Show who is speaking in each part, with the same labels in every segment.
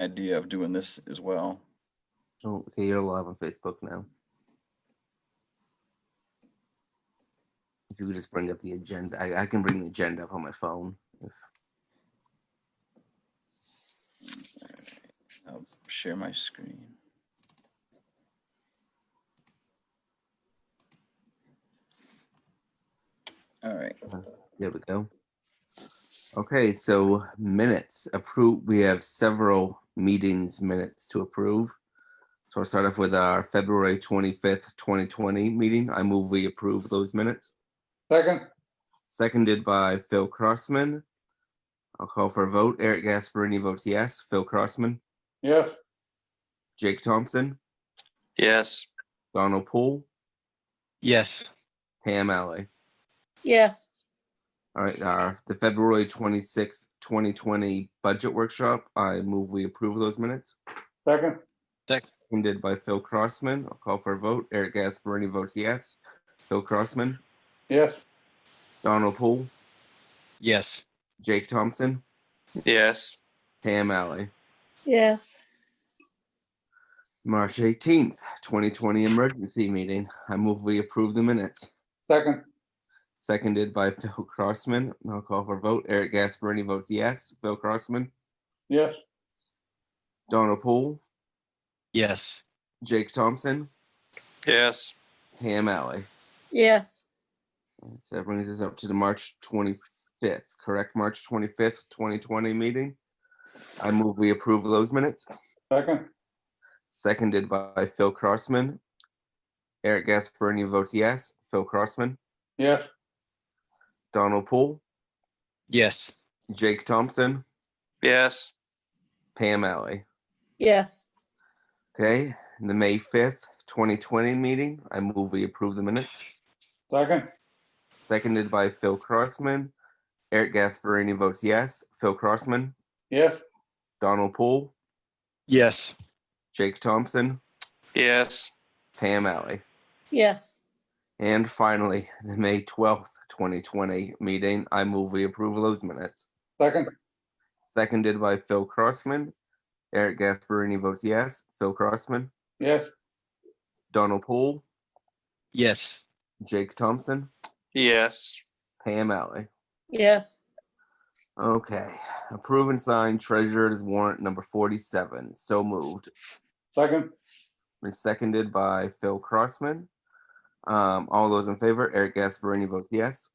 Speaker 1: idea of doing this as well.
Speaker 2: Oh, okay, you're live on Facebook now. If you could just bring up the agenda, I, I can bring the agenda up on my phone. if-
Speaker 1: I'll share my screen. All right,
Speaker 2: There we go. Okay, so minutes approve, we have several meetings minutes to approve. So I'll start off with our February twenty-fifth, twenty twenty meeting. I move we approve those minutes.
Speaker 3: Second,
Speaker 2: Seconded by Phil Crossman. I'll call for a vote. Eric Gasparini votes yes. Phil Crossman,
Speaker 3: yes,
Speaker 2: Jake Thompson.
Speaker 4: Yes.
Speaker 2: Donald Poole,
Speaker 5: Yes.
Speaker 2: Pam Alley.
Speaker 6: yes,
Speaker 2: All right, uh, the February twenty-sixth, twenty twenty budget workshop, I move we approve those minutes.
Speaker 3: second,
Speaker 2: Ended by Phil Crossman. I'll call for a vote. Eric Gasparini votes yes. Phil Crossman,
Speaker 3: yes,
Speaker 2: Donald Poole,
Speaker 5: Yes.
Speaker 2: Jake Thompson,
Speaker 4: Yes.
Speaker 2: Pam Alley.
Speaker 6: yes,
Speaker 2: March eighteenth, twenty twenty emergency meeting. I move we approve the minutes.
Speaker 3: second,
Speaker 2: Seconded by Phil Crossman. I'll call for a vote. Eric Gasparini votes yes. Phil Crossman,
Speaker 3: yes,
Speaker 2: Donald Poole,
Speaker 5: Yes.
Speaker 2: Jake Thompson,
Speaker 4: Yes.
Speaker 2: Pam Alley.
Speaker 6: yes,
Speaker 2: So That brings us up to the March twenty-fifth, correct? March twenty-fifth, twenty twenty meeting. I move we approve those minutes,
Speaker 3: second,
Speaker 2: seconded by Phil Crossman. Eric Gasperini votes yes. Phil Crossman,
Speaker 3: yes,
Speaker 2: Donald Poole,
Speaker 5: Yes.
Speaker 2: Jake Thompson,
Speaker 4: Yes.
Speaker 2: Pam Alley.
Speaker 6: yes,
Speaker 2: Okay, the May fifth, twenty twenty meeting, I move we approve the minutes,
Speaker 3: second,
Speaker 2: seconded by Phil Crossman. Eric Gasperini votes yes. Phil Crossman,
Speaker 3: yes,
Speaker 2: Donald Poole,
Speaker 5: Yes.
Speaker 2: Jake Thompson,
Speaker 4: Yes.
Speaker 2: Pam Alley.
Speaker 6: yes,
Speaker 2: And finally, the May twelfth, twenty twenty meeting, I move we approve those minutes.
Speaker 3: second,
Speaker 2: Seconded by Phil Crossman. Eric Gasparini votes yes. Phil Crossman,
Speaker 3: yes,
Speaker 2: Donald Poole,
Speaker 5: Yes.
Speaker 2: Jake Thompson,
Speaker 4: Yes.
Speaker 2: Pam Alley.
Speaker 6: yes,
Speaker 2: Okay, approve and sign treasurer's warrant number forty-seven. So moved.
Speaker 3: second,
Speaker 2: And seconded by Phil Crossman. Um, all those in favor, Eric Gasparini votes yes.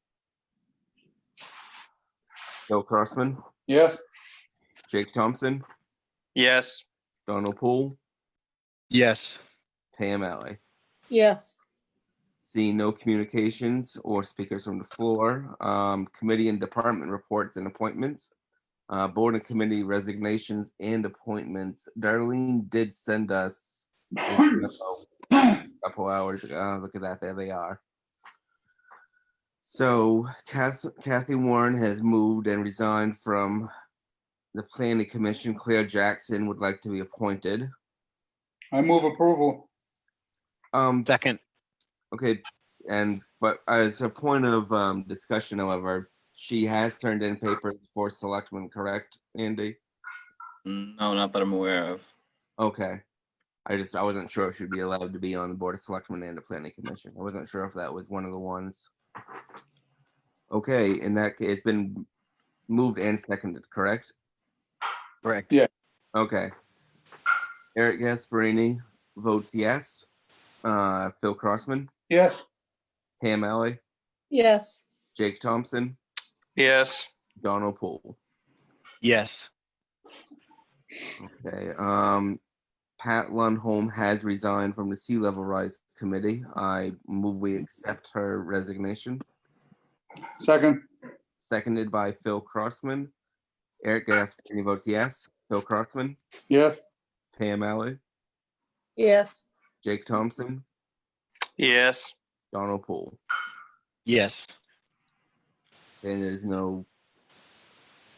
Speaker 2: Phil Crossman,
Speaker 3: yes,
Speaker 2: Jake Thompson,
Speaker 4: Yes.
Speaker 2: Donald Poole,
Speaker 5: Yes.
Speaker 2: Pam Alley.
Speaker 6: yes,
Speaker 2: Seeing no communications or speakers from the floor, um, committee and department reports and appointments. Uh, board and committee resignations and appointments. Darlene did send us a couple hours ago. Uh, Look at that, there they are. So Kath, Kathy Warren has moved and resigned from the planning commission. Claire Jackson would like to be appointed.
Speaker 3: I move approval,
Speaker 2: Um,
Speaker 5: Second.
Speaker 2: Okay, and but as a point of um discussion, however, she has turned in papers for selectmen, correct, Andy?
Speaker 1: no, not that I'm aware of.
Speaker 2: Okay. I just, I wasn't sure if she'd be allowed to be on the Board of Selectmen and the Planning Commission. I wasn't sure if that was one of the ones. Okay, in that, ca- it's been moved and seconded, correct?
Speaker 5: Correct.
Speaker 2: Okay. Eric Gasparini votes yes. Uh, Phil Crossman,
Speaker 3: yes,
Speaker 2: Pam Alley,
Speaker 6: yes,
Speaker 2: Jake Thompson,
Speaker 4: Yes.
Speaker 2: Donald Poole.
Speaker 5: Yes.
Speaker 2: Okay, um, Pat Lundholm has resigned from the Sea Level Rise Committee. I move we accept her resignation,
Speaker 3: second,
Speaker 2: seconded by Phil Crossman. Eric Gasperini votes yes. Phil Crossman,
Speaker 3: yes,
Speaker 2: Pam Alley,
Speaker 6: yes,
Speaker 2: Jake Thompson,
Speaker 4: Yes.
Speaker 2: Donald Poole.
Speaker 5: Yes.
Speaker 2: And there's no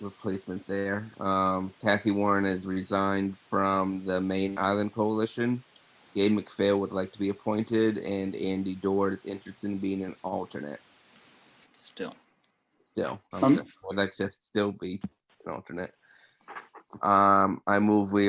Speaker 2: replacement there. Um, Kathy Warren has resigned from the Main Island Coalition. Gabe McPhail would like to be appointed, and Andy Dord is interested in being an alternate.
Speaker 1: Still,
Speaker 2: still. I
Speaker 3: Um,
Speaker 2: would like to still be an alternate. Um, I move we